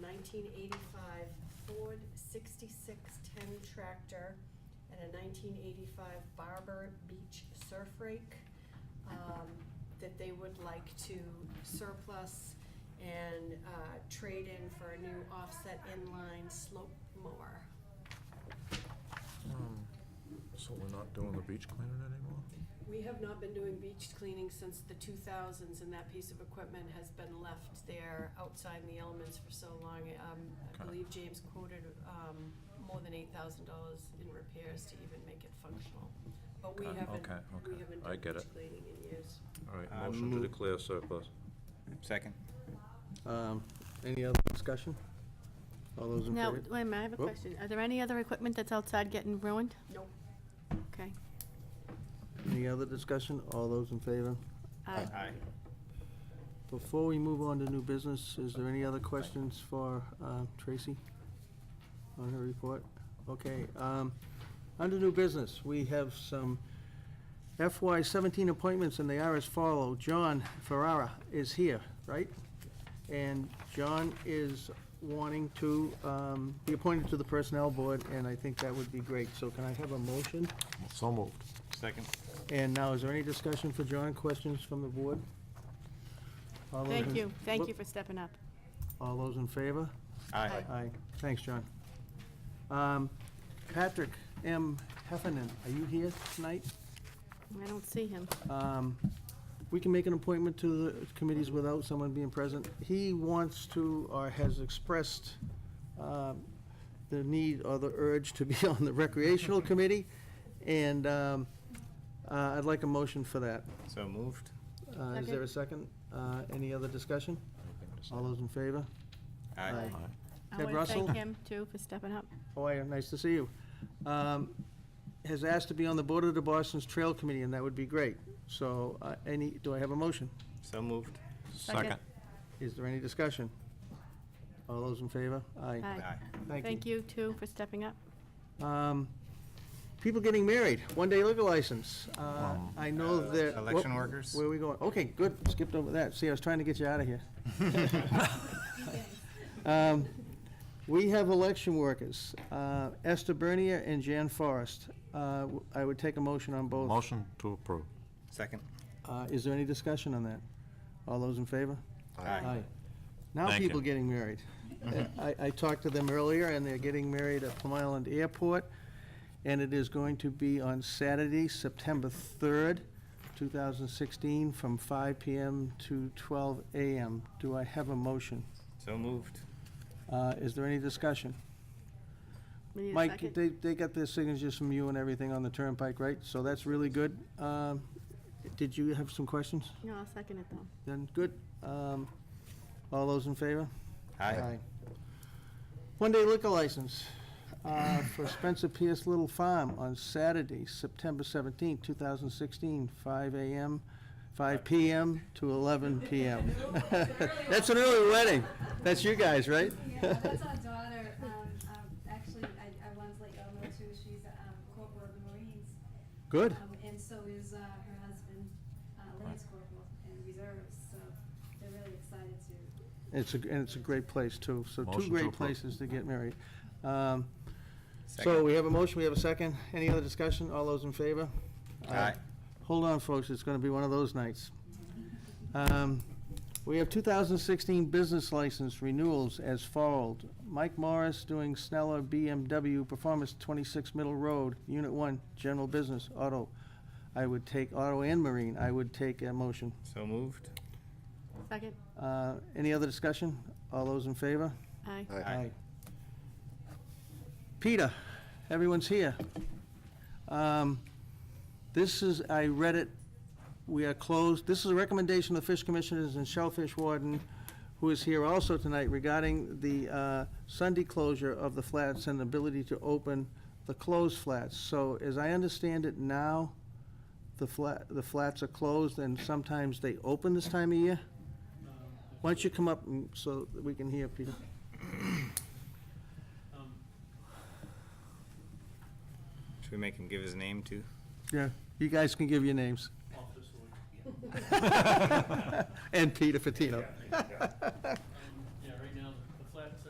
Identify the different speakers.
Speaker 1: nineteen eighty-five Ford sixty-six-ten tractor and a nineteen eighty-five Barber Beach surf rake, um, that they would like to surplus and, uh, trade in for a new offset inline slope mower.
Speaker 2: Um, So we're not doing the beach cleaning anymore?
Speaker 1: We have not been doing beach cleaning since the two thousands, and that piece of equipment has been left there outside in the elements for so long. Um, I
Speaker 2: Okay.
Speaker 1: believe James quoted, um, more than eight thousand dollars in repairs to even make it functional. But we
Speaker 2: Okay,
Speaker 1: haven't,
Speaker 2: okay,
Speaker 1: we
Speaker 2: okay.
Speaker 1: haven't
Speaker 2: I
Speaker 1: done
Speaker 2: get
Speaker 1: beach
Speaker 2: it.
Speaker 1: cleaning in years.
Speaker 2: All right,
Speaker 3: I
Speaker 2: motion to
Speaker 3: move-
Speaker 2: declare surplus.
Speaker 3: Second.
Speaker 4: Um, Any other discussion? All those in
Speaker 5: Now,
Speaker 4: favor?
Speaker 5: wait a minute, I have a
Speaker 4: Whoop.
Speaker 5: question. Are there any other equipment that's outside getting ruined?
Speaker 1: Nope.
Speaker 5: Okay.
Speaker 4: Any other discussion? All those in favor?
Speaker 5: Aye.
Speaker 4: Before we move on to new business, is there any other questions for uh, Tracy on her report? Okay, um, under new business, we have some FY seventeen appointments, and they are as follow. John Ferrara is here, right? And John is wanting to um, be appointed to the Personnel Board, and I think that would be great. So can I have a motion?
Speaker 2: So moved.
Speaker 3: Second.
Speaker 4: And now, is there any discussion for John? Questions from the board? All those
Speaker 5: Thank
Speaker 4: in-
Speaker 5: you, thank you
Speaker 4: Whoop.
Speaker 5: for stepping up.
Speaker 4: All those in favor?
Speaker 3: Aye.
Speaker 4: Aye. Thanks, John. Um, Patrick M. Heffernan, are you here tonight?
Speaker 5: I don't see him.
Speaker 4: Um, We can make an appointment to the committees without someone being present. He wants to, or has expressed um, the need or the urge to be on the recreational committee, and um, uh, I'd like a motion for that.
Speaker 3: So moved.
Speaker 4: Uh, Is there a second? Uh, Any other discussion? All those in favor? Aye.
Speaker 5: I
Speaker 4: Ted
Speaker 5: want to
Speaker 4: Russell?
Speaker 5: thank him, too, for stepping up.
Speaker 4: How are you? Nice to see you. Um, Has asked to be on the board of the Boston's Trail Committee, and that would be great. So, uh, any, do I have a motion?
Speaker 3: So moved.
Speaker 5: Second.
Speaker 4: Is there any discussion? All those in favor? Aye.
Speaker 5: Aye.
Speaker 4: Thank you.
Speaker 5: Thank you, too, for stepping up.
Speaker 4: Um, People getting married, one-day liquor license. Uh, I know that. whoop,
Speaker 3: Um, Election workers?
Speaker 4: Where are we going? Okay, good, skipped over that. See, I was trying to get you out of here. Um, We have election workers, uh, Esther Bernier and Jan Forrest. Uh, w- I would take a motion on both.
Speaker 2: Motion to approve.
Speaker 3: Second.
Speaker 4: Uh, Is there any discussion on that? All those in favor?
Speaker 3: Aye.
Speaker 4: Now
Speaker 2: Thank
Speaker 4: people
Speaker 2: you.
Speaker 4: getting married. I, I talked to them earlier, and they're getting married at Plum Island Airport, and it is going to be on Saturday, September 3rd, 2016, from 5 PM to 12 AM. Do I have a motion?
Speaker 3: So moved.
Speaker 4: Uh, Is there any discussion?
Speaker 5: We need a
Speaker 4: Mike,
Speaker 5: second.
Speaker 4: they, they got their signatures from you and everything on the turnpike, right? So that's really good. Um, Did you have some questions?
Speaker 5: No, I'll second it, though.
Speaker 4: Then, good. Um, All those in favor?
Speaker 3: Aye.
Speaker 4: One-day liquor license uh, for Spencer Pierce Little Farm on Saturday, September 17, 2016, 5 a.m., 5 p.m. to 11 p.m. That's an early wedding. That's you guys, right?
Speaker 6: Yeah, that's our daughter, um, um, actually, I, I once let y'all know too, she's, um, corporal of the Marines.
Speaker 4: Good.
Speaker 6: Um, And so is, uh, her husband, uh, Lance Corporal in reserves, so they're really excited to
Speaker 4: It's a, and it's a great place, too. So
Speaker 2: Motion
Speaker 4: two
Speaker 2: to
Speaker 4: great
Speaker 2: approve.
Speaker 4: places to get married. Um, So
Speaker 3: Second.
Speaker 4: we have a motion, we have a second. Any other discussion? All those in favor?
Speaker 3: Aye.
Speaker 4: Hold on, folks, it's gonna be one of those nights. Um, We have 2016 business license renewals as followed. Mike Morris doing Sneller BMW Performance 26 Middle Road, Unit 1, General Business, Auto. I would take Auto and Marine, I would take a motion.
Speaker 3: So moved.
Speaker 5: Second?
Speaker 4: Uh, Any other discussion? All those in favor?
Speaker 5: Aye.
Speaker 3: Aye.
Speaker 4: Peter, everyone's here. Um, This is, I read it, we are closed. This is a recommendation of the Fish Commissioners and Shellfish Warden, who is here also tonight regarding the uh, Sunday closure of the flats and ability to open the closed flats. So as I understand it now, the flat, the flats are closed and sometimes they open this time of year? Why don't you come up and- so that we can hear, Peter?
Speaker 3: Should we make him give his name too?
Speaker 4: Yeah, you guys can give your names. And Peter Fatino.